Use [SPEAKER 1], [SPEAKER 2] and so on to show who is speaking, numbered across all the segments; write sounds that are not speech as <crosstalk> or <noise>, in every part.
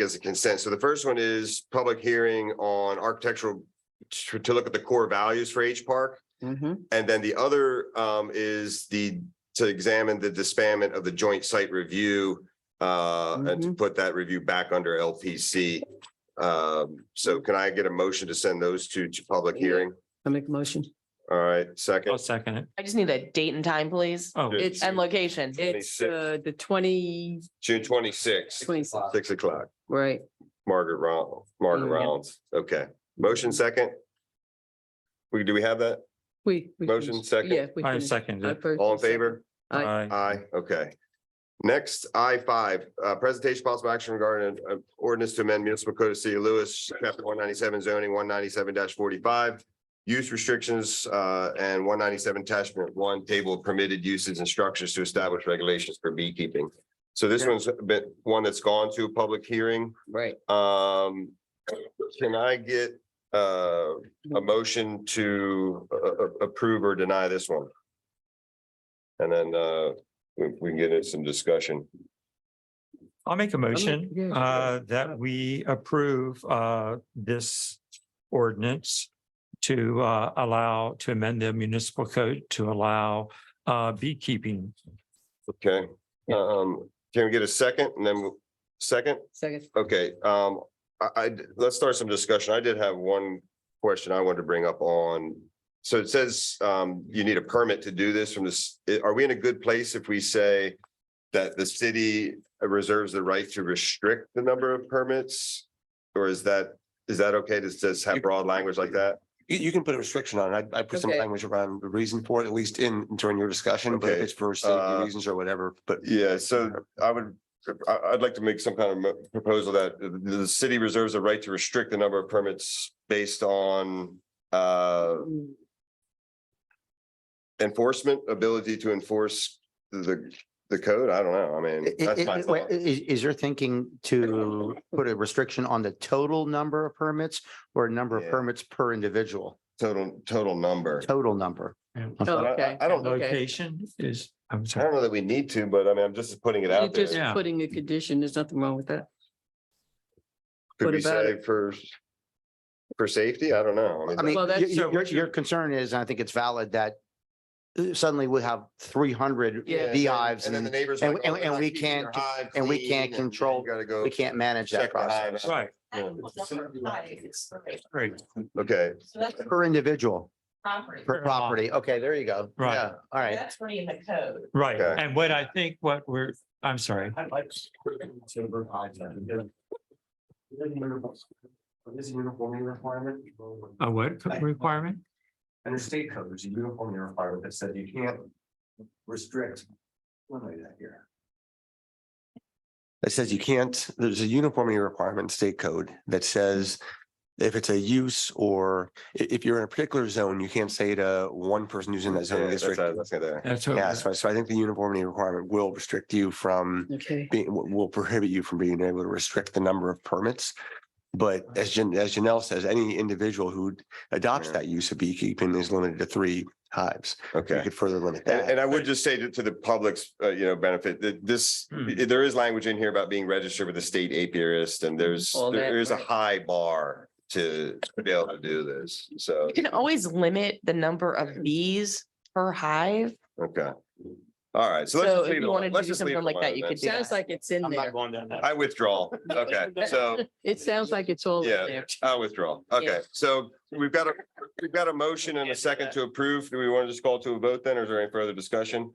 [SPEAKER 1] as a consent. So the first one is public hearing on architectural to, to look at the core values for H Park.
[SPEAKER 2] Mhm.
[SPEAKER 1] And then the other um is the, to examine the disbandment of the joint site review. Uh, and to put that review back under LPC. Um, so can I get a motion to send those two to public hearing?
[SPEAKER 2] I make a motion.
[SPEAKER 1] All right,
[SPEAKER 3] I'll
[SPEAKER 1] second.
[SPEAKER 3] second it.
[SPEAKER 4] I just need a date and time, please,
[SPEAKER 3] Oh,
[SPEAKER 1] Good.
[SPEAKER 2] It's-
[SPEAKER 4] and location.
[SPEAKER 2] It's
[SPEAKER 1] 26.
[SPEAKER 2] uh, the twenty,
[SPEAKER 1] June twenty-sixth,
[SPEAKER 2] twenty,
[SPEAKER 1] six o'clock,
[SPEAKER 2] right.
[SPEAKER 1] Margaret Round, Margaret
[SPEAKER 2] Yeah.
[SPEAKER 1] Rounds. Okay, motion second. We, do we have that?
[SPEAKER 2] We. we
[SPEAKER 1] Motion
[SPEAKER 2] finished.
[SPEAKER 1] second.
[SPEAKER 2] Yeah. we
[SPEAKER 3] I
[SPEAKER 2] finished.
[SPEAKER 3] second
[SPEAKER 2] I
[SPEAKER 3] it.
[SPEAKER 2] first
[SPEAKER 1] All in
[SPEAKER 2] and second.
[SPEAKER 1] favor?
[SPEAKER 2] Aye.
[SPEAKER 1] Aye, okay. Next, I five, uh, presentation possible action regarding uh, ordinance to amend municipal code of city of Lewis, chapter one ninety-seven zoning, one ninety-seven forty-five. Use restrictions, uh, and one ninety-seven attachment one table of permitted uses and structures to establish regulations for beekeeping. So this one's a bit, one that's gone to a public hearing.
[SPEAKER 2] Right.
[SPEAKER 1] Um, can I get, uh, a motion to, uh, uh, approve or deny this one? And then, uh, we, we can get into some discussion.
[SPEAKER 3] I'll make a
[SPEAKER 2] yeah,
[SPEAKER 3] motion
[SPEAKER 2] sure.
[SPEAKER 3] uh, that we approve uh, this ordinance to uh, allow, to amend the municipal code to allow uh, beekeeping.
[SPEAKER 1] Okay, um, can we get a second and then we'll- second?
[SPEAKER 2] Second.
[SPEAKER 1] Okay, um, I, I, let's start some discussion. I did have one question I wanted to bring up on. So it says, um, you need a permit to do this from this, are we in a good place if we say that the city reserves the right to restrict the number of permits? Or is that, is that okay to just have broad language like that?
[SPEAKER 5] You, you can put a restriction on it. I, I put some
[SPEAKER 2] Okay.
[SPEAKER 5] language around the reason for it, at least in, during your discussion, but if
[SPEAKER 1] Okay,
[SPEAKER 5] it's for
[SPEAKER 1] uh,
[SPEAKER 5] safety reasons or whatever, but.
[SPEAKER 1] Yeah, so I would, I, I'd like to make some kind of mo- proposal that the, the city reserves the right to restrict the number of permits based on uh, enforcement, ability to enforce the, the code. I don't know. I mean,
[SPEAKER 6] I-
[SPEAKER 1] that's
[SPEAKER 6] i-
[SPEAKER 1] my
[SPEAKER 6] i- wait,
[SPEAKER 1] thought.
[SPEAKER 6] i- Is, is your thinking to put a restriction on the total number of permits or a number of
[SPEAKER 1] Yeah.
[SPEAKER 6] permits per individual,
[SPEAKER 1] Total, total number.
[SPEAKER 6] total number?
[SPEAKER 2] Oh,
[SPEAKER 1] I- I-
[SPEAKER 2] Okay.
[SPEAKER 1] I don't-
[SPEAKER 2] Okay.
[SPEAKER 3] Location is, I'm
[SPEAKER 1] I don't
[SPEAKER 3] sorry.
[SPEAKER 1] know that we need to, but I mean, I'm just putting it
[SPEAKER 2] You're
[SPEAKER 1] out
[SPEAKER 2] just
[SPEAKER 1] there.
[SPEAKER 3] Yeah.
[SPEAKER 2] putting a condition. There's nothing wrong with that.
[SPEAKER 1] Could
[SPEAKER 2] what
[SPEAKER 1] we
[SPEAKER 2] about
[SPEAKER 1] say for, for safety? I don't know.
[SPEAKER 6] I mean,
[SPEAKER 2] Well,
[SPEAKER 6] your,
[SPEAKER 2] that's-
[SPEAKER 3] So
[SPEAKER 6] your,
[SPEAKER 3] what you-
[SPEAKER 6] your concern is, and I think it's valid, that uh, suddenly we have three hundred
[SPEAKER 2] Yeah.
[SPEAKER 6] beehives
[SPEAKER 1] And then the
[SPEAKER 6] and
[SPEAKER 1] neighbors.
[SPEAKER 6] and-
[SPEAKER 1] like, oh,
[SPEAKER 6] and-
[SPEAKER 1] they're
[SPEAKER 6] and
[SPEAKER 1] not
[SPEAKER 6] we
[SPEAKER 1] keeping their
[SPEAKER 6] can't-
[SPEAKER 1] hive
[SPEAKER 6] and we
[SPEAKER 1] clean,
[SPEAKER 6] can't
[SPEAKER 1] and you
[SPEAKER 6] control-
[SPEAKER 1] Gotta go.
[SPEAKER 6] we can't manage that
[SPEAKER 1] check the hive
[SPEAKER 6] process.
[SPEAKER 1] out.
[SPEAKER 3] Right, right.
[SPEAKER 1] Okay,
[SPEAKER 7] So that's
[SPEAKER 6] Per individual,
[SPEAKER 7] property.
[SPEAKER 6] per
[SPEAKER 3] Per lot.
[SPEAKER 6] property. Okay, there you go.
[SPEAKER 3] Right.
[SPEAKER 6] Yeah, All right.
[SPEAKER 7] That's already in the code.
[SPEAKER 3] Right,
[SPEAKER 1] Okay.
[SPEAKER 3] and what I think what we're, I'm sorry,
[SPEAKER 8] Is uniformity requirement.
[SPEAKER 3] a what requirement?
[SPEAKER 8] Under state code, there's a uniformity requirement that said you can't restrict. eliminate that here.
[SPEAKER 5] It says you can't, there's a uniformity requirement in state code that says if it's a use or i- if you're in a particular zone, you can't say to one person who's in that
[SPEAKER 1] Yeah,
[SPEAKER 5] zoning
[SPEAKER 1] that's what
[SPEAKER 5] district.
[SPEAKER 1] I was gonna say.
[SPEAKER 3] That's
[SPEAKER 5] Yeah,
[SPEAKER 3] what,
[SPEAKER 5] so, so I think the uniformity requirement will restrict you from
[SPEAKER 2] Okay.
[SPEAKER 5] being, will- will prohibit you from being able to restrict the number of permits. But as Jan, as Janelle says, any individual who adopts
[SPEAKER 1] Yeah.
[SPEAKER 5] that use of beekeeping is limited to three hives. You
[SPEAKER 1] Okay.
[SPEAKER 5] could further limit
[SPEAKER 1] And,
[SPEAKER 5] that.
[SPEAKER 1] and I would just say to, to the public's, uh, you know, benefit, that this,
[SPEAKER 3] Hmm.
[SPEAKER 1] there is language in here about being registered with the state apiarist and there's,
[SPEAKER 2] All that,
[SPEAKER 1] there is a
[SPEAKER 2] right.
[SPEAKER 1] high bar to be able to do this. So,
[SPEAKER 4] You can always limit the number of bees per hive.
[SPEAKER 1] okay. All right. So let's
[SPEAKER 4] So
[SPEAKER 1] just
[SPEAKER 4] if
[SPEAKER 1] leave it
[SPEAKER 4] you wanted
[SPEAKER 1] alone.
[SPEAKER 4] to
[SPEAKER 1] Let's
[SPEAKER 4] do
[SPEAKER 1] just leave it
[SPEAKER 4] something like that,
[SPEAKER 1] alone
[SPEAKER 4] you
[SPEAKER 1] then.
[SPEAKER 4] could do
[SPEAKER 2] Sounds
[SPEAKER 4] that.
[SPEAKER 2] like it's in there.
[SPEAKER 3] going down that.
[SPEAKER 1] I
[SPEAKER 4] <laughs>
[SPEAKER 1] withdraw. Okay. So
[SPEAKER 2] It sounds like it's all
[SPEAKER 1] Yeah. Uh,
[SPEAKER 2] in there.
[SPEAKER 1] I withdraw. Okay.
[SPEAKER 2] Yeah.
[SPEAKER 1] So we've
[SPEAKER 2] <laughs>
[SPEAKER 1] got a, we've got a motion and a second to approve. Do we want to just call to a vote then or is there any further discussion?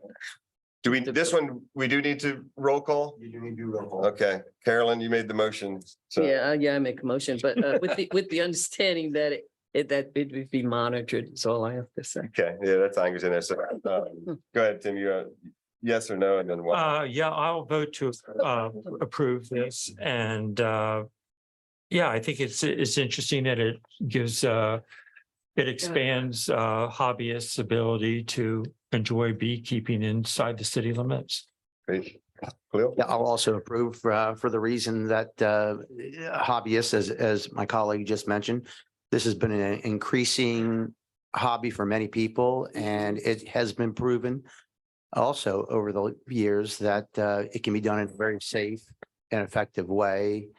[SPEAKER 1] Do we, this one, we do need to roll call?
[SPEAKER 8] You do need to do. roll call.
[SPEAKER 1] Okay. Carolyn, you made the motion. So.
[SPEAKER 2] Yeah, uh, yeah, I make a motion, but uh, with the, with the understanding that it- it, that it would be monitored, is all I have to say.
[SPEAKER 1] Okay, yeah, that's language in there. So,
[SPEAKER 2] <laughs>
[SPEAKER 1] um, go ahead, Tim, you, uh, yes or no, and then what?
[SPEAKER 3] Uh, yeah, I'll vote to uh approve this and uh. Yeah, I think it's it's interesting that it gives uh. It expands uh hobbyists' ability to enjoy beekeeping inside the city limits.
[SPEAKER 1] Great. Cleo?
[SPEAKER 6] Yeah, I'll also approve uh, for the reason that uh, hobbyists, as, as my colleague just mentioned, this has been an increasing hobby for many people, and it has been proven also over the years that uh, it can be done in a very safe and effective way